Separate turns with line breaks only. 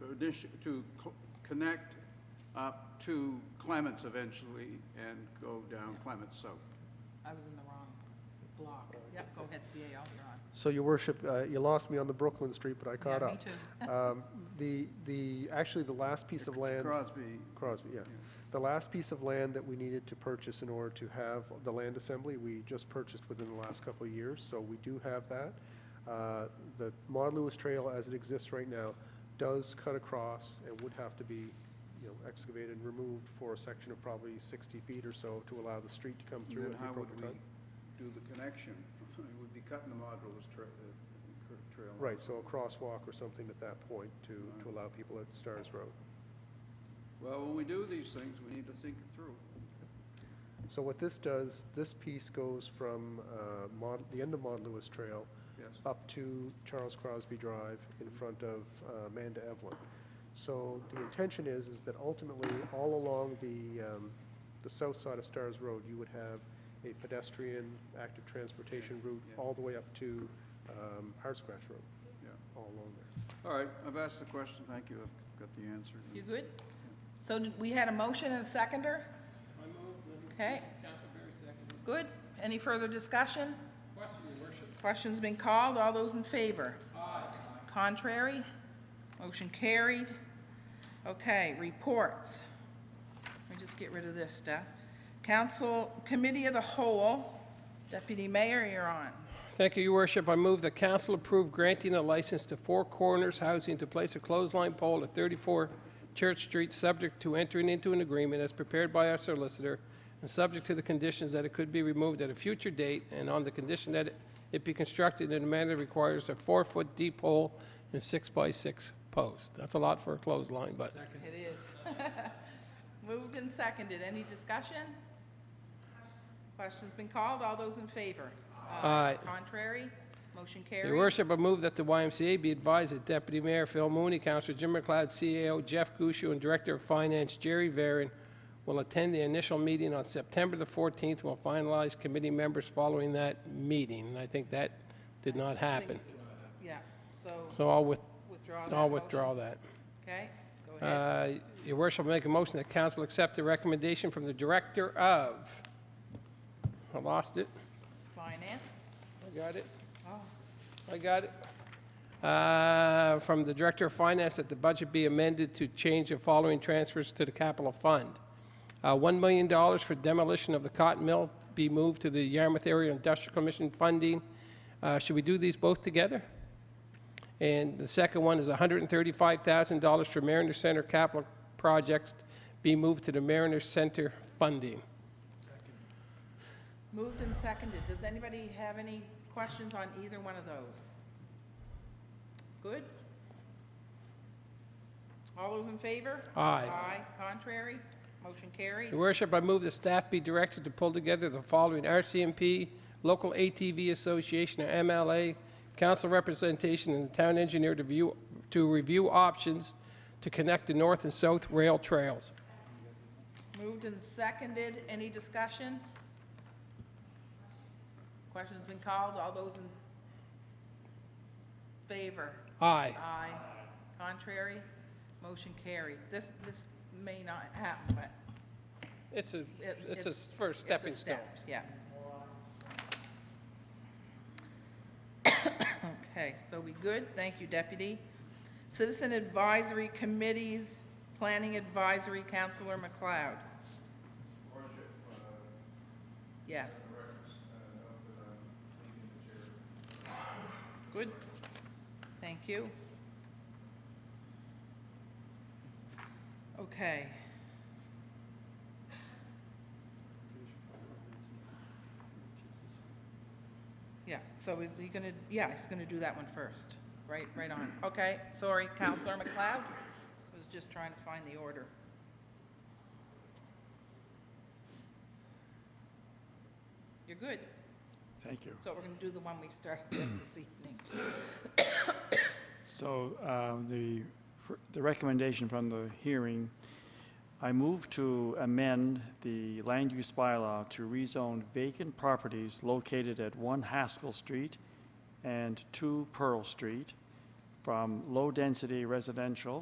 condition, to co- connect up to Clements eventually and go down Clements South.
I was in the wrong block.
Oh,
Yep, go ahead, CAO, you're on.
So, Your Worship, uh, you lost me on the Brooklyn Street, but I caught
Yeah,
up.
me too.
Um, The, the, actually, the last piece of land.
Crosby,
Crosby, yeah. The last piece of land that we needed to purchase in order to have the land assembly, we just purchased within the last couple of years, so we do have that. Uh, The Maude Lewis Trail, as it exists right now, does cut across and would have to be, you know, excavated and removed for a section of probably 60 feet or so to allow the street to come
and
through
then
at the
how would
appropriate
we do
time.
the connection? It would be cutting the modular's tra- uh, cur- trail.
Right, so a crosswalk or something at that point to, to allow people at Stars Road.
Well, when we do these things, we need to think it through.
So what this does, this piece goes from uh, Mon- the end of Maude Lewis Trail
Yes,
up to Charles Crosby Drive in front of uh, Amanda Evelyn. So the intention is, is that ultimately, all along the, um, the south side of Stars Road, you would have a pedestrian, active transportation route
yeah.
all the way up to um, Hard Scratch Road,
yeah.
all along there.
All right, I've asked the question, thank you, I've got the answer.
You good? So did- we had a motion and a seconder? Okay. Good. Any further discussion? Question's been called. All those in favor? Aye. Contrary? Motion carried. Okay, reports. Let me just get rid of this stuff. Council Committee of the Whole, Deputy Mayor, you're on.
Thank you, Your Worship. I move the council approve granting a license to Four Corners Housing to place a clothesline pole at 34 Church Street, subject to entering into an agreement as prepared by our solicitor and subject to the conditions that it could be removed at a future date and on the condition that it be constructed in a manner that requires a four-foot deep hole and six-by-six post. That's a lot for a clothesline, but
It is. Moved and seconded. Any discussion? Question's been called. All those in favor? Uh,
Aye.
Contrary? Motion
Your
carried.
worship, I move that the YMCA be advised that Deputy Mayor Phil Mooney, Councilor Jim McLeod, CAO Jeff Gushu, and Director of Finance Jerry Varon will attend the initial meeting on September the 14th. We'll finalize committee members following that meeting, and I think that did not happen.
Yeah, so
So I'll with,
withdraw that
I'll
motion.
withdraw that.
Okay, go ahead.
Uh, Your worship, I make a motion that council accept the recommendation from the Director of, I lost it.
Finance.
I got it.
Oh,
I got it. Uh, From the Director of Finance, that the budget be amended to change the following transfers to the capital fund. Uh, $1 million for demolition of the cotton mill be moved to the Yarmouth Area Industrial Commission funding. Uh, Should we do these both together? And the second one is $135,000 for Mariner Center capital projects be moved to the Mariner Center funding.
Moved and seconded. Does anybody have any questions on either one of those? Good? All those in favor?
Aye.
Aye. Contrary? Motion carried.
Your worship, I move the staff be directed to pull together the following RCMP, local ATV association, or MLA, council representation, and the town engineer to view, to review options to connect the north and south rail trails.
Moved and seconded. Any discussion? Question's been called. All those in favor?
Aye.
Aye. Contrary? Motion carried. This, this may not happen, but
It's a,
it-
it's a first stepping
it's a
stone.
step, Yeah. Okay, so we good? Thank you, Deputy. Citizen Advisory Committees, Planning Advisory, Counselor McLeod. Yes. Good. Thank you. Okay. Yeah, so is he gonna, yeah, he's gonna do that one first. Right, right on. Okay, sorry, Counselor McLeod? I was just trying to find the order. You're good.
Thank you.
So we're gonna do the one we started with this evening.
So uh, the, the recommendation from the hearing, I move to amend the land use bylaw to rezone vacant properties located at 1 Haskell Street and 2 Pearl Street from low-density residential